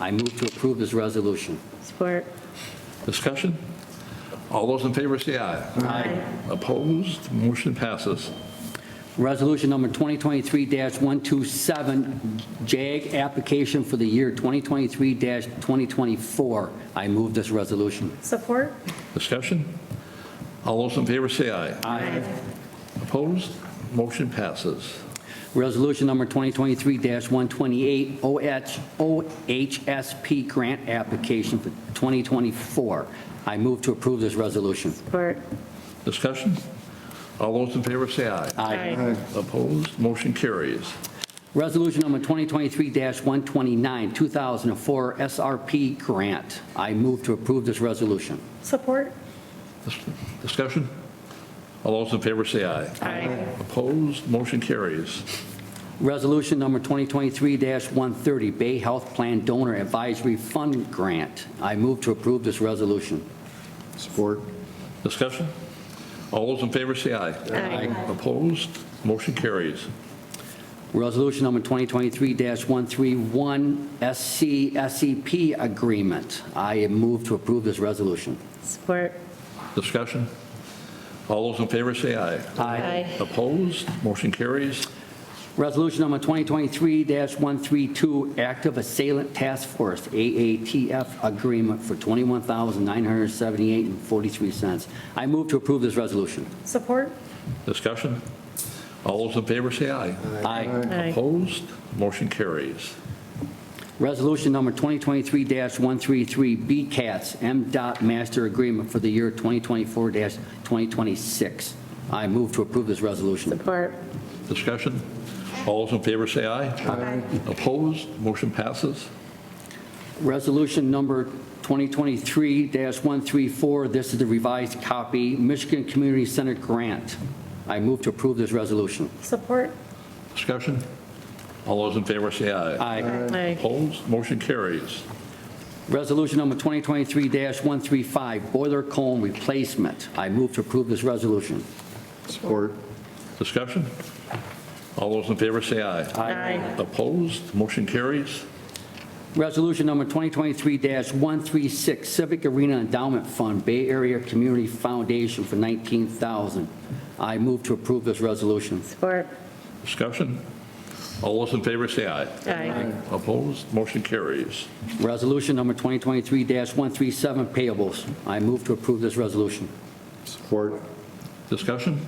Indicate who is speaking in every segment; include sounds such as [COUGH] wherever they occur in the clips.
Speaker 1: I move to approve this resolution.
Speaker 2: Support.
Speaker 3: Discussion? All those in favor say aye.
Speaker 2: Aye.
Speaker 3: Opposed? Motion passes.
Speaker 1: Resolution number 2023-127, JAG application for the year 2023-2024. I move this resolution.
Speaker 2: Support.
Speaker 3: Discussion? All those in favor say aye. Opposed? Motion passes.
Speaker 1: Resolution number 2023-128, OH OHSP grant application for 2024. I move to approve this resolution.
Speaker 2: Support.
Speaker 3: Discussion? All those in favor say aye. Opposed? Motion carries.
Speaker 1: Resolution number 2023-129, 2004 SRP grant. I move to approve this resolution.
Speaker 2: Support.
Speaker 3: Dis- Discussion? All those in favor say aye.
Speaker 2: Aye.
Speaker 3: Opposed? Motion carries.
Speaker 1: Resolution number 2023-130, Bay Health Plan Donor Advisory Fund Grant. I move to approve this resolution.
Speaker 4: Support.
Speaker 3: Discussion? All those in favor say aye.
Speaker 2: Aye.
Speaker 3: Opposed? Motion carries.
Speaker 1: Resolution number 2023-131, SC SCP E Agreement. I move to approve this resolution.
Speaker 2: Support.
Speaker 3: Discussion? All those in favor say aye. Opposed? Motion carries.
Speaker 1: Resolution number 2023-132, Active Assailant Task Force, AATF Agreement for $21,978.43. I move to approve this resolution.
Speaker 2: Support.
Speaker 3: Discussion? All those in favor say aye.
Speaker 1: Aye.
Speaker 2: Aye.
Speaker 3: Opposed? Motion carries.
Speaker 1: Resolution number 2023-133, BCATS M.Dot Master Agreement for the year 2024-2026. I move to approve this resolution.
Speaker 2: Support.
Speaker 3: Discussion? All those in favor say aye. Opposed? Motion passes.
Speaker 1: Resolution number 2023-134, this is the revised copy, Michigan Community Center Grant. I move to approve this resolution.
Speaker 2: Support.
Speaker 3: Discussion? All those in favor say aye.
Speaker 1: Aye.
Speaker 2: Aye.
Speaker 3: Opposed? Motion carries.
Speaker 1: Resolution number 2023-135, Boiler Cone Replacement. I move to approve this resolution.
Speaker 4: Support.
Speaker 3: Discussion? All those in favor say aye.
Speaker 2: Aye.
Speaker 3: Opposed? Motion carries.
Speaker 1: Resolution number 2023-136, Civic Arena Endowment Fund, Bay Area Community Foundation for 19000 I move to approve this resolution.
Speaker 2: Support.
Speaker 3: Discussion? All those in favor say aye.
Speaker 2: Aye.
Speaker 3: Opposed? Motion carries.
Speaker 1: Resolution number 2023-137, Payables. I move to approve this resolution.
Speaker 4: Support.
Speaker 3: Discussion?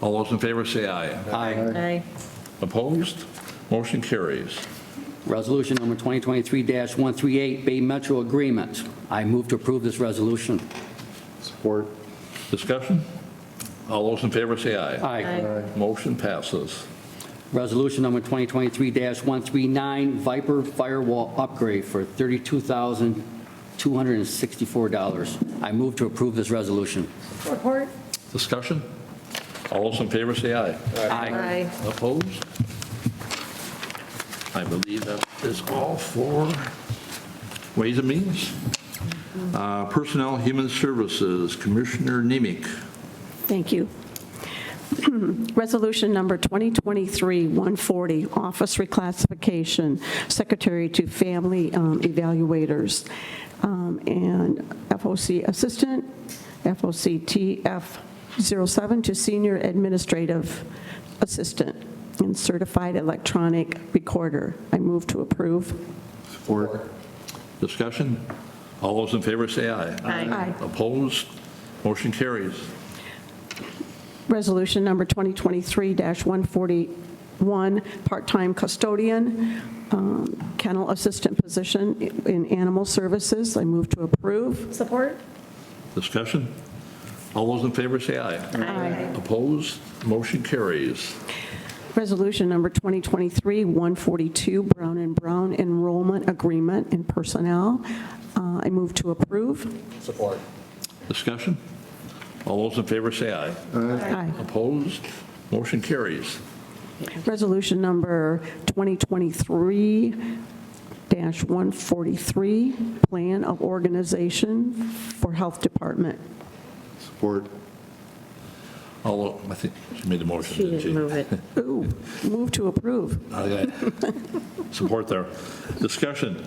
Speaker 3: All those in favor say aye.
Speaker 1: Aye.
Speaker 2: Aye.
Speaker 3: Opposed? Motion carries.
Speaker 1: Resolution number 2023-138, Bay Metro Agreement. I move to approve this resolution.
Speaker 4: Support.
Speaker 3: Discussion? All those in favor say aye.
Speaker 1: Aye.
Speaker 2: Aye.
Speaker 3: Motion passes.
Speaker 1: Resolution number 2023-139, Viper Firewall Upgrade for $32,264. I move to approve this resolution.
Speaker 2: Support.
Speaker 3: Discussion? All those in favor say aye.
Speaker 2: Aye.
Speaker 3: Opposed? I believe that is all for Ways and Means. Uh, Personnel, Human Services, Commissioner Nemic.
Speaker 5: Thank you. [CLEARS THROAT] Resolution number 2023-140, office reclassification, secretary to family um, evaluators, um, and FOC assistant, FOCTF 07 to senior administrative assistant, and certified electronic recorder. I move to approve.
Speaker 4: Support.
Speaker 3: Discussion? All those in favor say aye.
Speaker 2: Aye.
Speaker 3: Opposed? Motion carries.
Speaker 5: Resolution number 2023-141, part-time custodian, um, kennel assistant position in animal services. I move to approve.
Speaker 2: Support.
Speaker 3: Discussion? All those in favor say aye.
Speaker 2: Aye.
Speaker 3: Opposed? Motion carries.
Speaker 5: Resolution number 2023-142, Brown and Brown enrollment agreement and personnel. Uh, I move to approve.
Speaker 4: Support.
Speaker 3: Discussion? All those in favor say aye.
Speaker 5: Aye.
Speaker 3: Opposed? Motion carries.
Speaker 5: Resolution number 2023-143, plan of organization for health department.
Speaker 4: Support.
Speaker 3: All, I think she made the motion,
Speaker 2: She
Speaker 3: didn't she?
Speaker 2: didn't move it.
Speaker 5: Ooh, move to approve.
Speaker 3: Okay. Support there. Discussion.